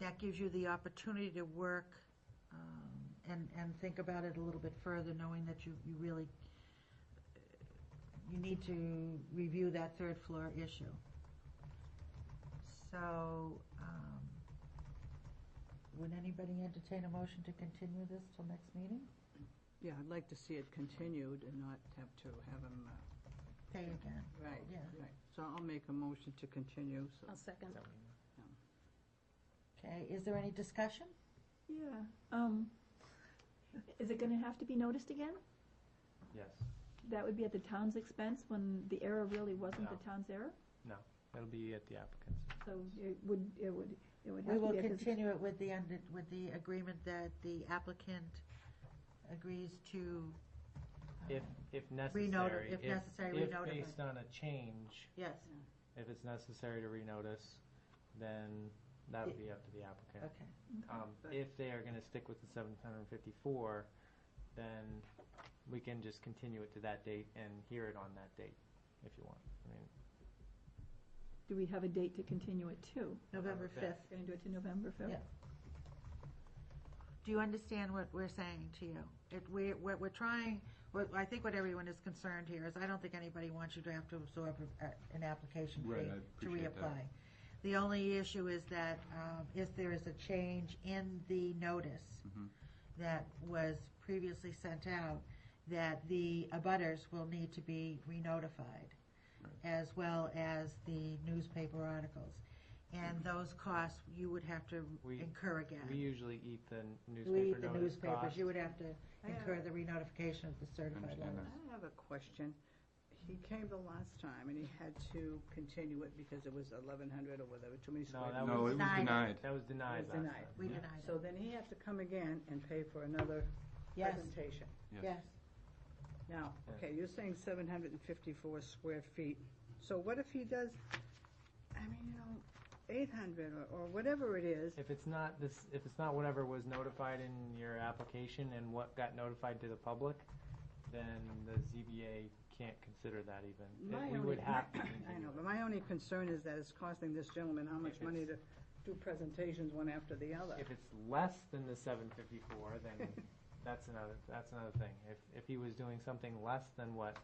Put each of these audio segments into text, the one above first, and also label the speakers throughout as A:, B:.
A: that gives you the opportunity to work um, and, and think about it a little bit further, knowing that you, you really, you need to review that third floor issue. So, um, would anybody entertain a motion to continue this till next meeting?
B: Yeah, I'd like to see it continued and not have to have them,
A: Pay again.
B: right,
A: Yeah.
B: right. So I'll make a motion to continue, so.
C: I'll second.
A: Okay, is there any discussion?
D: Yeah, um, is it gonna have to be noticed again?
E: Yes,
D: That would be at the town's expense when the error really wasn't
E: No.
D: the town's error?
E: that'll be at the applicant's.
D: So it would, it would, it would
A: We
D: have to
A: will
D: be at his.
A: continue it with the, under- with the agreement that the applicant agrees to. uh,
E: If, if necessary.
A: Renoti- if necessary,
E: If
A: renotify.
E: based on a change,
A: Yes,
E: if it's necessary to renotice, then that would be up to the applicant.
A: okay.
E: Um, if they are gonna stick with the seven hundred and fifty-four, then we can just continue it to that date and hear it on that date, if you want. I mean,
D: Do we have a date to continue it to?
A: November
E: November
A: 5th.
E: fifth.
D: Gonna do it to November fifth?
A: Yeah. Do you understand what we're saying to you? It, we, what we're trying, what, I think what everyone is concerned here is, I don't think anybody wants you to have to absorb a- an application
F: Right, I
A: fee to
F: appreciate that.
A: reapply. The only issue is that, um, if there is a change in the notice
F: Mhm.
A: that was previously sent out, that the abutters will need to be re-notified,
F: Right.
A: as well as the newspaper articles. And those costs you would have to
E: We-
A: incur again.
E: We usually eat the
A: We,
E: newspaper
A: the
E: notice
A: newspapers,
E: cost.
A: you would have to
B: I have-
A: incur the renotification of the certified
F: Understand
A: letter.
F: that.
B: I have a question. He came the last time and he had to continue it because it was eleven hundred or whatever, too many
E: No,
B: square.
E: that
B: feet.
F: No, it was
A: Denied.
F: denied.
E: That was denied
B: was
E: last time.
B: denied.
A: We
F: Yeah.
A: denied
B: So
A: it.
B: then he has to come again and pay for another
A: Yes,
B: presentation.
A: yes.
B: Now,
E: Yeah.
B: okay, you're saying seven hundred and fifty-four square feet. So what if he does, I mean, you know, eight hundred or, or whatever it is?
E: If it's not this, if it's not whatever was notified in your application and what got notified to the public, then the ZBA can't consider that even.
B: My
E: It- We
B: only-
E: would have to
B: I know,
E: continue.
B: but my only concern is that it's costing this gentleman how much
E: If
B: money to do presentations one after the other.
E: If it's less than the seven fifty-four, then that's another, that's another thing. If, if he was doing something less than what,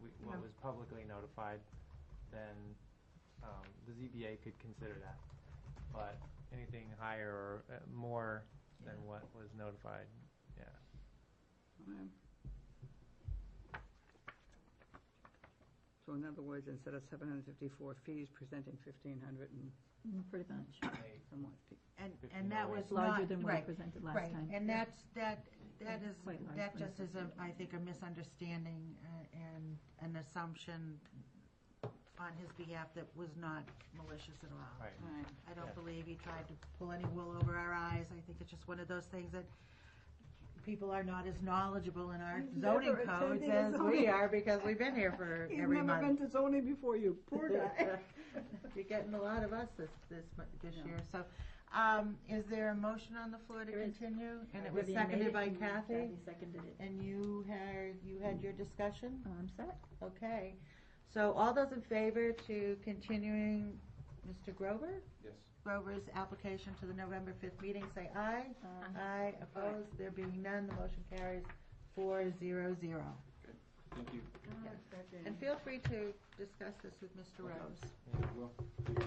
E: we-
A: Yeah.
E: what was publicly notified, then, um, the ZBA could consider that. But anything higher or uh, more than
A: Yeah.
E: what was notified, yeah.
B: Um, So in other words, instead of seven hundred and fifty-four fees, presenting fifteen hundred and
D: Mm, Pretty much,
E: I-
B: some odd feet.
A: And,
E: Fifteen
A: and that was
E: dollars.
A: not,
D: larger than what we
A: right,
D: presented last
A: right.
D: time.
A: And that's, that, that is,
D: Quite large
A: that
D: one.
A: just is, a I think, a misunderstanding uh, and an assumption on his behalf that was not malicious at all.
E: Right.
B: Right.
A: I don't
E: Yeah.
A: believe he tried to pull any wool over our eyes. I think it's just one of those things that people are not as knowledgeable in our
B: He's
A: zoning
B: never
A: codes
B: attended a
A: as we
B: zoning-
A: are because we've been here for
B: He's
A: every
B: never been
A: month.
B: to zoning before you, poor guy.
A: You're getting a lot of us this, this, mo- this
B: Yeah.
A: year. So, um, is there a motion on the floor to
C: There is.
A: continue? And it
C: It
A: was
C: would be
A: seconded
C: made
A: by
C: and
A: Kathy?
C: Kathy seconded it.
A: And you had, you had your discussion?
D: Oh, I'm set.
A: Okay. So all those in favor to continuing Mr. Grover?
F: Yes.
A: Grover's application to the November 5th meeting, say aye.
C: Uh-huh.
D: Uh,
A: Aye, opposed, there being none, the motion carries four zero zero.
F: Thank you.
B: God, that day.
A: And feel free to discuss this with Mr.
F: Okay.
A: Rose.
E: Yeah,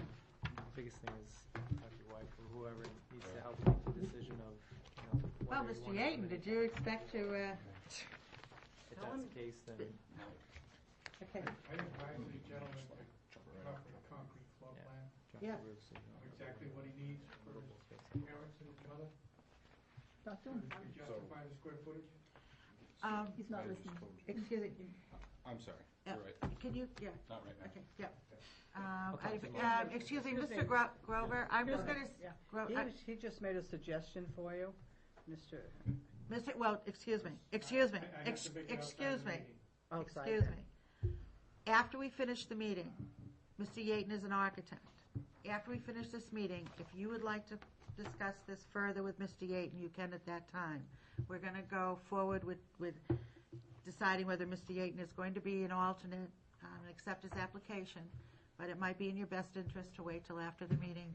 E: Biggest thing is talk to your wife or whoever needs to help make the decision of, you know,
A: Well,
E: whether you
A: Mr.
E: want to
A: Yaden,
E: limit
A: did
E: it.
A: you expect to, uh,
E: If that's the case, then.
A: okay,
G: I advise the gentleman to come up with a concrete floor
E: Yeah.
G: plan,
A: Yeah.
G: of exactly what he needs for his parents and his mother,
D: Doctor,
G: to justify the square footage.
A: um,
D: he's not listening.
A: excuse me,
F: I'm sorry,
A: You're can you, yeah,
F: not right
A: okay, yeah. Um,
E: Okay.
A: I- um, excuse me,
B: Excuse me.
A: Mr. Gro- Grover, I'm just
B: Excuse
A: gonna,
B: Yeah.
A: s- Gro-
B: He
A: I-
B: was- He just made a suggestion for you, Mr.
A: Mr., well, excuse me, excuse me,
G: I- I have to
A: ex-
G: make it outside
A: excuse
G: the
A: me.
G: meeting.
B: outside
A: Excuse
B: then.
A: me. Oh, After we finish the meeting, Mr. Yaton is an architect. After we finish this meeting, if you would like to discuss this further with Mr. Yaton, you can at that time. We're gonna go forward with, with deciding whether Mr. Yaton is going to be an alternate, um, and accept his application. But it might be in your best interest to wait till after the meeting